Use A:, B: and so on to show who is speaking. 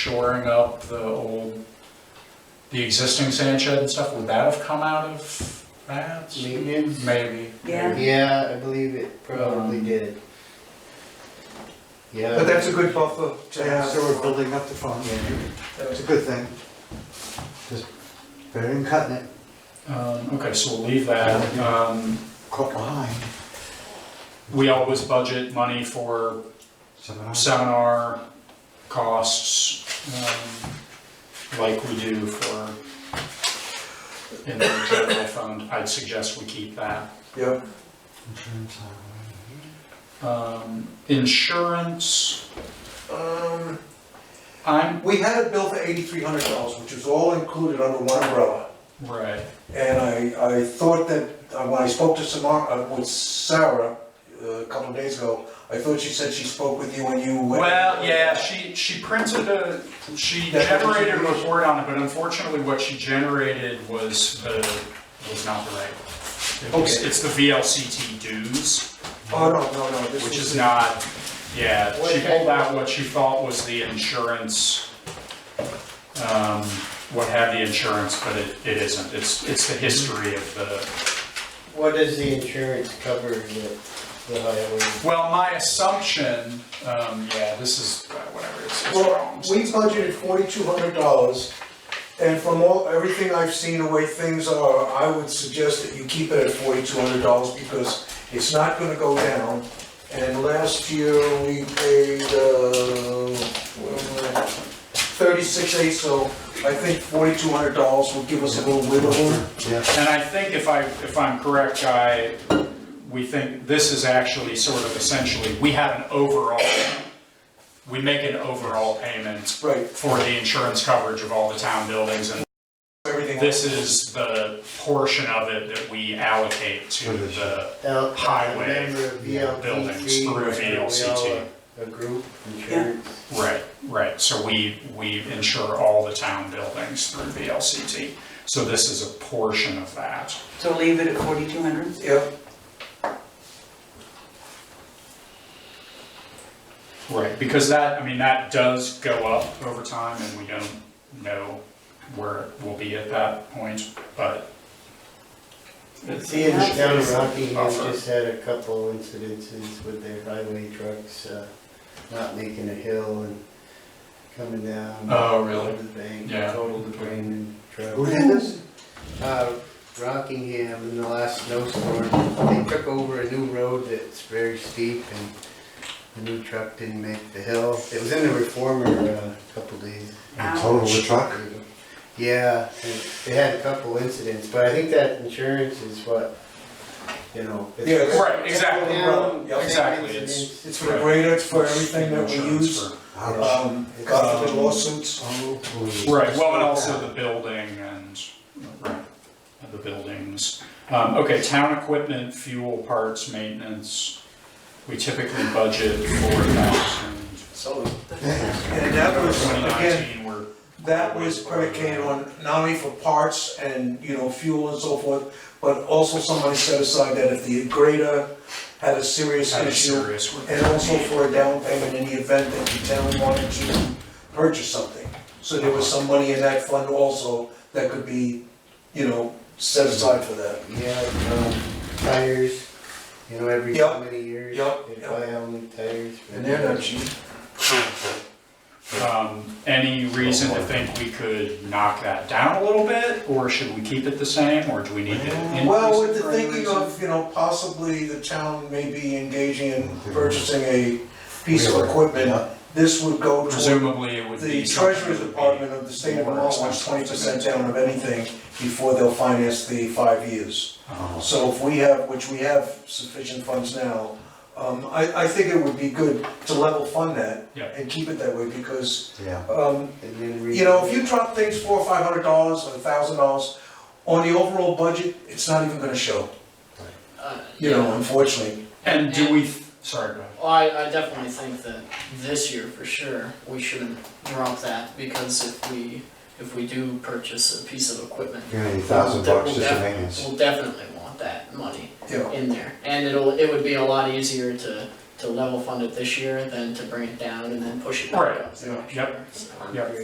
A: shoring up the old, the existing sand shed and stuff, would that have come out of that?
B: Maintenance?
A: Maybe.
C: Yeah.
B: Yeah, I believe it probably
A: Um,
B: did. Yeah.
D: But that's a good buffer to have, so we're
B: Yeah.
D: building up the fund.
B: Yeah,
D: It's a good thing. Just better than cutting it,
A: Um, okay, so we'll leave that. Um,
D: caught behind.
A: we always budget money for
D: Seven hours.
A: seminar costs, um, like we do for in the general fund, I'd suggest we keep that.
D: Yep. Insurance, uh, highway.
A: Um, insurance,
E: Um,
A: I'm,
E: we had a bill for eighty-three hundred dollars, which was all included under one umbrella.
A: right,
E: And I, I thought that, uh, when I spoke to Samar, uh, with Sarah, uh, a couple of days ago, I thought she said she spoke with you and you. went-
A: well, yeah, she, she printed a, she
E: That's what she
A: generated a
E: did.
A: report on it, but unfortunately, what she generated was the, was not the right. one. It was-
E: Okay.
A: It's the VLCT dues.
E: Oh, no, no, no, this was.
A: Which is not, yeah, she pulled out what she thought was the insurance, um, what had the insurance, but it, it isn't. It's, it's the history of the,
B: What does the insurance cover the, the highway?
A: well, my assumption, um, yeah, this is, uh, whatever, it's, it's
E: Well,
A: wrong.
E: we budgeted forty-two hundred dollars, and from all, everything I've seen, the way things are, I would suggest that you keep it at forty-two hundred dollars, because it's not gonna go down. And last year, we paid, uh, thirty-six eight, so I think forty-two hundred dollars will give us a little wiggle room.
D: Yeah,
A: And I think if I, if I'm correct, Guy, we think this is actually sort of essentially, we have an overall, we make an overall payment
E: Right,
A: for the insurance coverage of all the town buildings and
E: everything.
A: This is the portion of it that we allocate to the,
B: Now,
A: Highway,
B: Remember
A: buildings
B: VLCT?
A: through
B: where we all
A: VLCT.
B: A group insurance.
A: right, right, so we, we insure all the town buildings through VLCT. So this is a portion of that.
C: So leave it at 4,200?
E: Yeah,
A: Right. Because that, I mean, that does go up over time and we don't know where it will be at that point, but
B: See, in the town of Rockingham,
A: Buffer.
B: just had a couple incidences with their highway trucks, uh, not making a hill and coming down.
A: Oh, really?
B: over The bank,
A: Yeah.
B: total the drain and truck.
D: who did this?
B: uh, Rockingham in the last snowstorm, they took over a new road that's very steep and the new truck didn't make the hill. It was in the reformer uh, a couple days
D: Total the truck?
B: ago. Yeah, and they had a couple incidents, but I think that insurance is what, you know. it's-
E: Yeah, it's-
A: Right, exactly,
B: Down,
E: Yeah,
A: exactly,
B: same
A: it's-
B: incidents.
E: it's for the grader, it's for everything that we
A: Insurance
E: use,
A: for-
D: Ouch.
E: um, God forbid lawsuits.
A: Right, well, and also the building and, right, and the buildings. Um, okay, town equipment, fuel, parts, maintenance, we typically budget four thousand.
E: And that was,
A: Twenty
E: again,
A: nineteen, we're,
E: That was predicated on not only for parts and, you know, fuel and so forth, but also somebody set aside that if the grader had a serious
A: kind of
E: issue,
A: serious. we're-
E: and also for a down payment in the event that the town wanted to purchase something. So there was some money in that fund also that could be, you know, set aside for that.
B: Yeah, um, tires, you know, every so
E: Yep,
B: many years,
E: yep,
B: they
E: yep.
B: buy out new tires. for
E: And they're not
B: the-
E: cheap.
A: Um, any reason to think we could knock that down a little bit, or should we keep it the same, or do we need to increase it?
E: Well, with the
A: for any
E: thinking
A: reason?
E: of, you know, possibly the town may be engaging in purchasing a piece of equipment, this would go towards
A: Presumably it would be.
E: The
A: something
E: treasurer's
A: that would be-
E: department of the state of Vermont wants twenty percent down of anything before they'll finance the five years.
A: Oh,
E: So if we have, which we have sufficient funds now, um, I, I think it would be good to level fund that
A: Yeah.
E: and keep it that way because,
D: Yeah.
E: um,
B: And then re-
E: you know, if you drop things four or five hundred dollars or a thousand dollars on the overall budget, it's not even gonna show,
F: Uh,
E: you know, unfortunately.
A: And do we, sorry, go ahead.
F: Well, I, I definitely think that this year for sure, we shouldn't drop that, because if we, if we do purchase a piece of equipment,
D: Give me a thousand bucks just for maintenance.
F: we'll definitely want that money
E: Yeah.
F: in there. And it'll, it would be a lot easier to, to level fund it this year than to bring it down and then push it back
A: Right,
F: up. the next
A: yep.
F: year, so.
A: Yep.